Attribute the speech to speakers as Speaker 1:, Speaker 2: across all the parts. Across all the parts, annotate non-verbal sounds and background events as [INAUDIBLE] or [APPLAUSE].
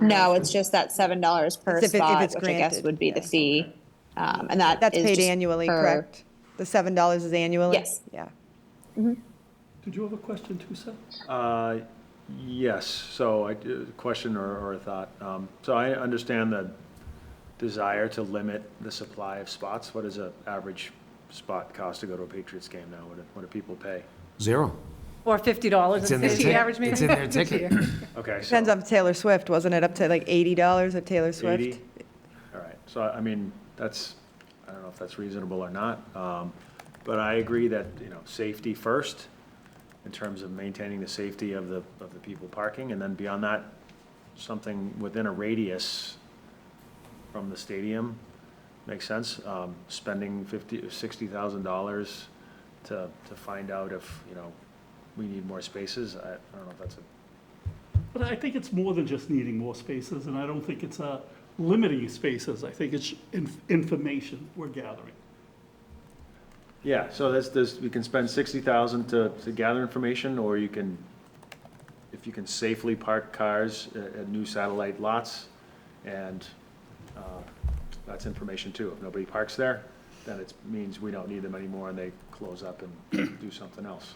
Speaker 1: No, it's just that seven dollars per
Speaker 2: If it- if
Speaker 1: spot,
Speaker 2: it's
Speaker 1: which I guess
Speaker 2: granted,
Speaker 1: would be the
Speaker 2: yeah.
Speaker 1: fee. Um, and that
Speaker 2: That's
Speaker 1: is
Speaker 2: paid
Speaker 1: just
Speaker 2: annually,
Speaker 1: per-
Speaker 2: correct? The $7 is annually?
Speaker 1: Yes.
Speaker 2: Yeah.
Speaker 3: Did you have a question too, Seth?
Speaker 4: Uh, Yes, so I, a question or, or a thought. Um, So I understand the desire to limit the supply of spots. What does an average spot cost to go to a Patriots game now? What do, what do people pay?
Speaker 5: Zero.
Speaker 6: Or fifty dollars
Speaker 5: It's in
Speaker 6: and
Speaker 5: their
Speaker 6: fifty
Speaker 5: ticket.
Speaker 6: average maybe?
Speaker 5: It's in
Speaker 6: [LAUGHS]
Speaker 5: their ticket.
Speaker 4: Okay, so
Speaker 2: Depends on Taylor Swift, wasn't it up to like $80 at Taylor Swift?
Speaker 4: eighty? All right, so I I mean, that's, I don't know if that's reasonable or not. um, But I agree that, you know, safety first in terms of maintaining the safety of the, of the people parking. And then beyond that, something within a radius from the stadium. Makes sense. Um, spending fifty, sixty thousand dollars to, to find out if, you know, we need more spaces, I, I don't know if that's a,
Speaker 3: But I think it's more than just needing more spaces, and I don't think it's uh, limiting spaces. I think it's inf- information we're gathering.
Speaker 4: yeah, so that's, this, we can spend sixty thousand to, to gather information, or you can, if you can safely park cars at, at new satellite lots, and, uh, that's information too. If nobody parks there, then it means we don't need them anymore, and they close up and do something else.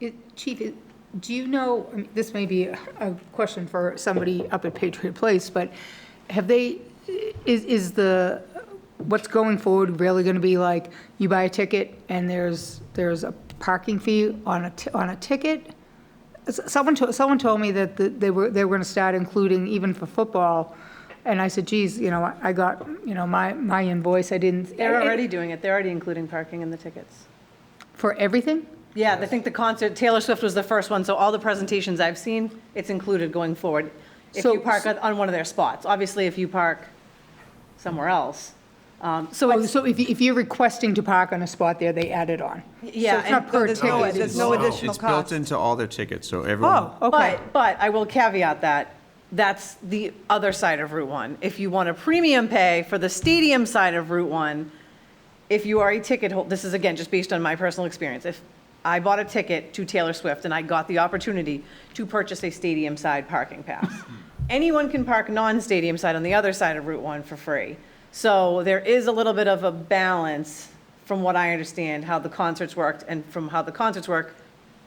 Speaker 6: It- Chief, it- do you know, I mean, this may be a question for somebody up at Patriot Place, but have they, is, is the, what's going forward really going to be like, you buy a ticket and there's, there's a parking fee on a, ti- on a ticket? S- Someone, to- someone told me that th- they were, they were going to start including even for football, and I said, geez, you know, I- I got, you know, my, my invoice, I didn't.
Speaker 7: They're already doing it. They're already including parking in the tickets.
Speaker 6: For everything?
Speaker 7: Yeah, I think the concert, Taylor Swift was the first one, so all the presentations I've seen, it's included going forward. If
Speaker 6: So-
Speaker 7: you park on- on one of their spots, obviously if you park somewhere else. um, So
Speaker 6: Oh,
Speaker 7: it's,
Speaker 6: so if, you- if you're requesting to park on a spot there, they add it on? So
Speaker 7: yeah,
Speaker 6: it's not
Speaker 7: and-
Speaker 6: per
Speaker 2: there's no-
Speaker 6: ticket?
Speaker 2: there's no
Speaker 8: It's-
Speaker 2: additional
Speaker 8: It's built
Speaker 2: cost.
Speaker 8: into all their tickets, so everyone,
Speaker 6: Oh, okay.
Speaker 7: but, but I will caveat that, that's the other side of Route 1. If you want a premium pay for the stadium side of Route 1, if you are a ticket holder, this is again just based on my personal experience. If I bought a ticket to Taylor Swift and I got the opportunity to purchase a stadium side parking
Speaker 6: [LAUGHS]
Speaker 7: pass, anyone can park non stadium side on the other side of Route 1 for free. So there is a little bit of a balance from what I understand how the concerts worked, and from how the concerts work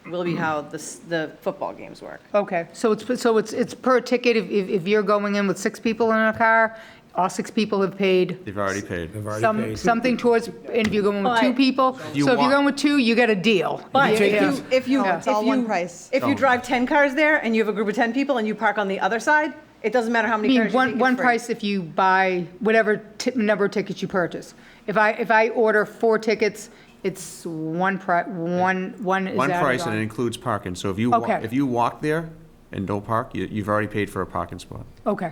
Speaker 7: will be how the, s- the football games work.
Speaker 6: Okay, so it's, so it's, it's per ticket, if, if if you're going in with six people in a car, all six people have paid
Speaker 8: they've already paid.
Speaker 5: I've already
Speaker 6: some,
Speaker 5: paid.
Speaker 6: something towards, and if you're going with two
Speaker 7: But-
Speaker 6: people, so if
Speaker 8: You
Speaker 6: you're
Speaker 8: want-
Speaker 6: going with two, you get a deal.
Speaker 7: But if
Speaker 6: Yeah.
Speaker 7: you, if you.
Speaker 2: No, Oh, it's
Speaker 7: if
Speaker 2: all one
Speaker 7: you-
Speaker 2: price.
Speaker 6: Oh.
Speaker 7: If you drive 10 cars there and you have a group of 10 people and you park on the other side, it doesn't matter how
Speaker 6: I
Speaker 7: many
Speaker 6: mean,
Speaker 7: cars you take,
Speaker 6: one,
Speaker 7: it's
Speaker 6: one
Speaker 7: free.
Speaker 6: price if you buy whatever ti- number of tickets you purchase. If I, if I order four tickets, it's one pri, one, one is
Speaker 8: One
Speaker 6: added
Speaker 8: price and
Speaker 6: on.
Speaker 8: it includes parking, so if you, wa-
Speaker 6: Okay.
Speaker 8: if you walk there and don't park, you, you've already paid for a parking spot.
Speaker 6: Okay,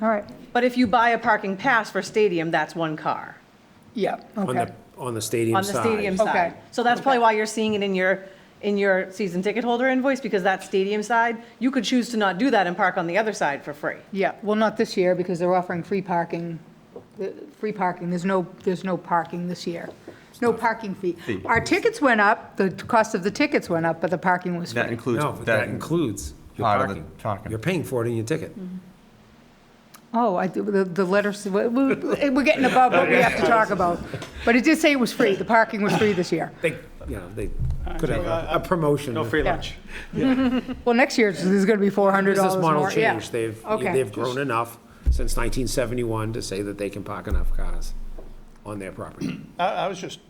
Speaker 6: all right,
Speaker 7: But if you buy a parking pass for stadium, that's one car
Speaker 6: yeah,
Speaker 5: On
Speaker 6: okay.
Speaker 5: the, on the stadium
Speaker 7: on the
Speaker 5: side.
Speaker 7: stadium
Speaker 6: Okay.
Speaker 7: side. So that's probably why you're seeing it in your, in your season ticket holder invoice, because that stadium side, you could choose to not do that and park on the other side for free.
Speaker 6: Yeah, well, not this year, because they're offering free parking, uh, free parking, there's no, there's no parking this year. No parking fee.
Speaker 8: Fee.
Speaker 6: Our tickets went up, the cost of the tickets went up, but the parking was
Speaker 8: That
Speaker 6: free.
Speaker 8: includes,
Speaker 5: No, but that
Speaker 8: that
Speaker 5: includes your
Speaker 8: part of the
Speaker 5: parking.
Speaker 8: parking.
Speaker 5: You're paying for it in your ticket.
Speaker 6: Mm-hmm. Oh, I, the, the letters, we- we- we're getting above what we have to talk about. But it did say it was free, the parking was free this year.
Speaker 5: They, you know, they could have a- a promotion.
Speaker 4: No free
Speaker 6: Yeah.
Speaker 4: lunch.
Speaker 6: Well, next year, there's going to be $400
Speaker 5: Business model
Speaker 6: more, yeah.
Speaker 5: change. They've,
Speaker 6: Okay.
Speaker 5: they've grown enough since 1971 to say that they can park enough cars on their property.
Speaker 9: I, I was just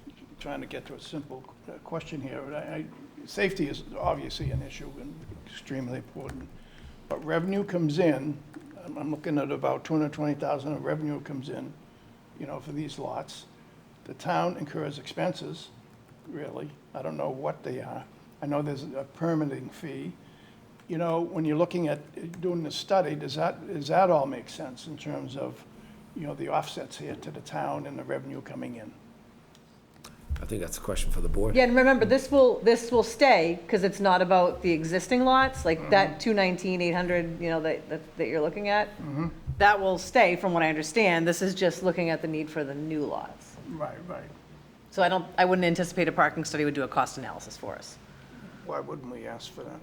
Speaker 9: trying to get to a simple uh, question here. I, I, safety is obviously an issue and extremely important. But revenue comes in, I'm, I'm looking at about two hundred twenty thousand of revenue comes in, you know, for these lots. The town incurs expenses, really. I don't know what they are. I know there's a permitting fee. You know, when you're looking at uh, doing the study, does that, does that all make sense in terms of, you know, the offsets here to the town and the revenue coming in?
Speaker 5: I think that's a question for the board.
Speaker 7: Yeah, and remember, this will, this will stay, because it's not about the existing lots, like that 219, 800, you know, that, that- that you're looking at. That will stay, from what I understand. This is just looking at the need for the new lots.
Speaker 9: Right, right.
Speaker 7: So I don't, I wouldn't anticipate a parking study would do a cost analysis for us.
Speaker 9: Why wouldn't we ask for that?